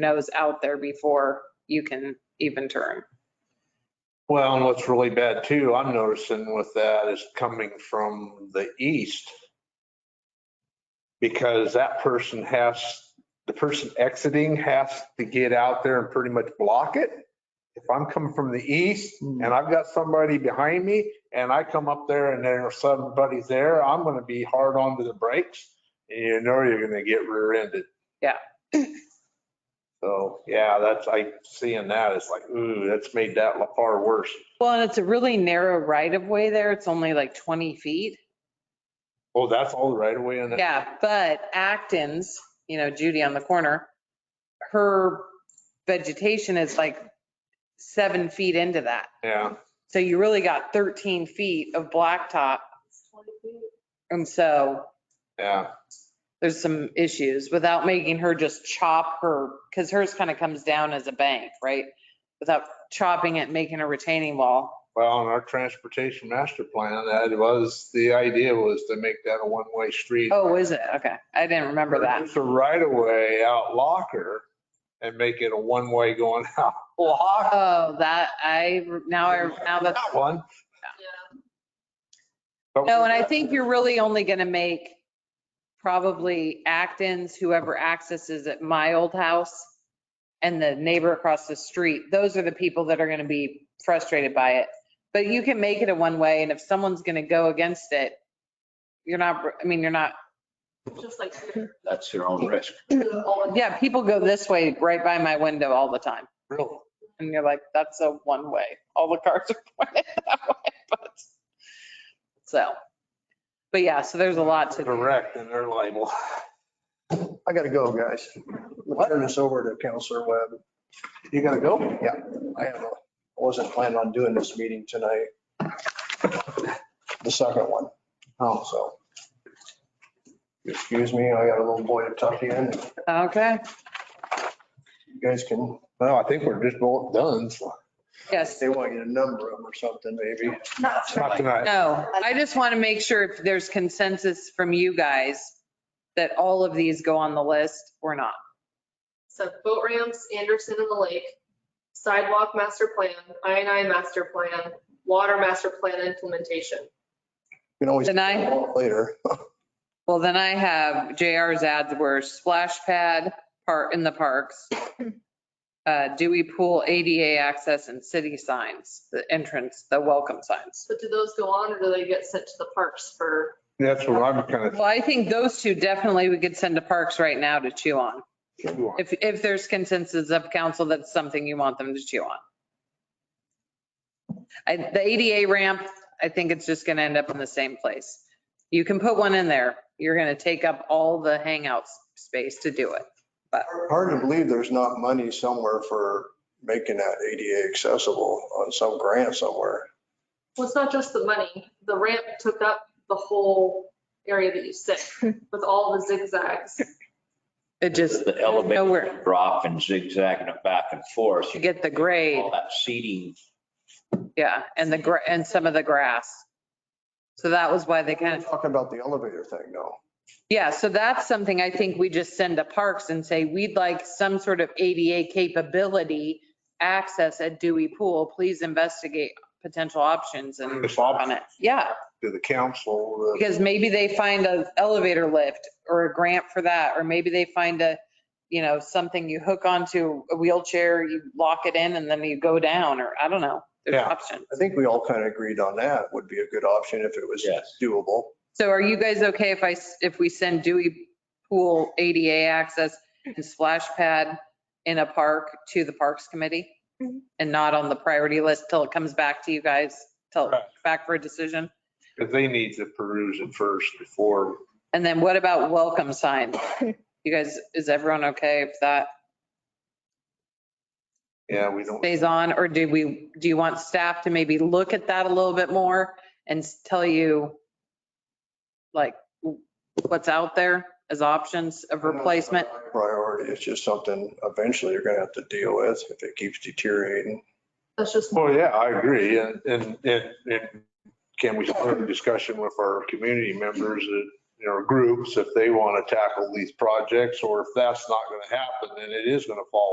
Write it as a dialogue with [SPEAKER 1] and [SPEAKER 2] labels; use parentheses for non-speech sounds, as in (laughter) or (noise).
[SPEAKER 1] nose out there before you can even turn.
[SPEAKER 2] Well, and what's really bad too, I'm noticing with that is coming from the east. Because that person has, the person exiting has to get out there and pretty much block it. If I'm coming from the east and I've got somebody behind me and I come up there and there's somebody there, I'm gonna be hard onto the brakes. And you know you're gonna get rear-ended.
[SPEAKER 1] Yeah.
[SPEAKER 2] So, yeah, that's, I seeing that, it's like, ooh, that's made that far worse.
[SPEAKER 1] Well, and it's a really narrow right of way there. It's only like 20 feet.
[SPEAKER 2] Oh, that's all the right away in it?
[SPEAKER 1] Yeah, but Acton's, you know, Judy on the corner, her vegetation is like seven feet into that.
[SPEAKER 2] Yeah,
[SPEAKER 1] So you really got 13 feet of blacktop. And so
[SPEAKER 2] yeah.
[SPEAKER 1] there's some issues without making her just chop her, because hers kind of comes down as a bank, right? Without chopping it, making a retaining wall.
[SPEAKER 2] Well, in our transportation master plan, that was, the idea was to make that a one-way street.
[SPEAKER 1] Oh, is it? Okay. I didn't remember that.
[SPEAKER 2] It's a right away out locker and make it a one-way going (laughs) out locker.
[SPEAKER 1] Oh, that, I, now I, now that's,
[SPEAKER 2] That one. But
[SPEAKER 1] no, and I think you're really only going to make probably Acton's, whoever accesses at my old house and the neighbor across the street, those are the people that are going to be frustrated by it. But you can make it a one-way and if someone's going to go against it, you're not, I mean, you're not,
[SPEAKER 3] Just like here.
[SPEAKER 4] That's your own risk.
[SPEAKER 1] yeah, people go this way right by my window all the time.
[SPEAKER 2] Really?
[SPEAKER 1] And you're like, that's a one-way. All the cars are (laughs) pointed that way, but, so. But yeah, so there's a lot to,
[SPEAKER 2] Direct in their label.
[SPEAKER 5] I gotta go, guys. We'll turn this over to Counselor Webb.
[SPEAKER 2] You gotta go?
[SPEAKER 5] Yeah, I have a- I wasn't planning on doing this meeting tonight. The second one. Oh. So. Excuse me, I got a little boy to tuck in.
[SPEAKER 1] okay,
[SPEAKER 5] You guys can,
[SPEAKER 2] No, I think we're just both done.
[SPEAKER 1] yes.
[SPEAKER 5] they want you to number them or something, maybe.
[SPEAKER 2] It's Not tonight.
[SPEAKER 1] No, I just want to make sure if there's consensus from you guys that all of these go on the list or not.
[SPEAKER 3] So boat ramps, Anderson and the lake, sidewalk master plan, I and I master plan, water master plan implementation.
[SPEAKER 5] You can always.
[SPEAKER 1] Deny?
[SPEAKER 5] Later.
[SPEAKER 1] Well, then I have JR's ads were splash pad part in the parks, uh, Dewey Pool ADA access and city signs, the entrance, the welcome signs.
[SPEAKER 3] So do those go on or do they get sent to the parks for?
[SPEAKER 2] That's what I'm kind
[SPEAKER 1] Well, I think those two definitely we could send to parks right now to chew on.
[SPEAKER 2] of.
[SPEAKER 1] If, if there's consensus of council, that's something you want them to chew on. I, the ADA ramp, I think it's just gonna end up in the same place. You can put one in there. You're gonna take up all the hangout space to do it.
[SPEAKER 5] Hard to believe there's not money somewhere for making that ADA accessible on some grant somewhere.
[SPEAKER 3] Well, it's not just the money. The ramp took up the whole area that you sit with all the zigzags.
[SPEAKER 1] It just,
[SPEAKER 4] The
[SPEAKER 1] Nowhere.
[SPEAKER 4] elevator drop and zigzagging it back and forth.
[SPEAKER 1] to
[SPEAKER 4] You get
[SPEAKER 1] get the grade,
[SPEAKER 4] all that seating.
[SPEAKER 1] yeah, and the, gra- and some of the grass. So that was why they kind of,
[SPEAKER 5] Talking about the elevator thing, no.
[SPEAKER 1] yeah, so that's something I think we just send to parks and say, we'd like some sort of ADA capability access at Dewey Pool. Please investigate potential options and
[SPEAKER 2] It's
[SPEAKER 1] on
[SPEAKER 2] up
[SPEAKER 1] it. Yeah,
[SPEAKER 2] to the council. uh,
[SPEAKER 1] because maybe they find an elevator lift or a grant for that, or maybe they find a, you know, something you hook onto a wheelchair, you lock it in and then you go down, or I don't know. There's
[SPEAKER 2] Yeah.
[SPEAKER 1] options.
[SPEAKER 5] I think we all kind of agreed on that would be a good option if it was
[SPEAKER 4] Yes.
[SPEAKER 5] doable.
[SPEAKER 1] So are you guys okay if I, s- if we send Dewey Pool ADA access and splash pad in a park to the Parks Committee? And not on the priority list till it comes back to you guys, till
[SPEAKER 2] Right.
[SPEAKER 1] back for a decision?
[SPEAKER 2] Because they need to peruse it first before
[SPEAKER 1] And then what about welcome sign? You guys, is everyone okay if that
[SPEAKER 2] Yeah, we don't,
[SPEAKER 1] stays on? Or do we, do you want staff to maybe look at that a little bit more and s- tell you like what's out there as options of replacement?
[SPEAKER 5] Priority, it's just something eventually you're gonna have to deal with if it keeps deteriorating.
[SPEAKER 3] That's just
[SPEAKER 2] well, Oh, yeah, I agree. And, and, and and can we start a discussion with our community members, uh, you know, groups, if they want to tackle these projects? Or if that's not going to happen, then it is going to fall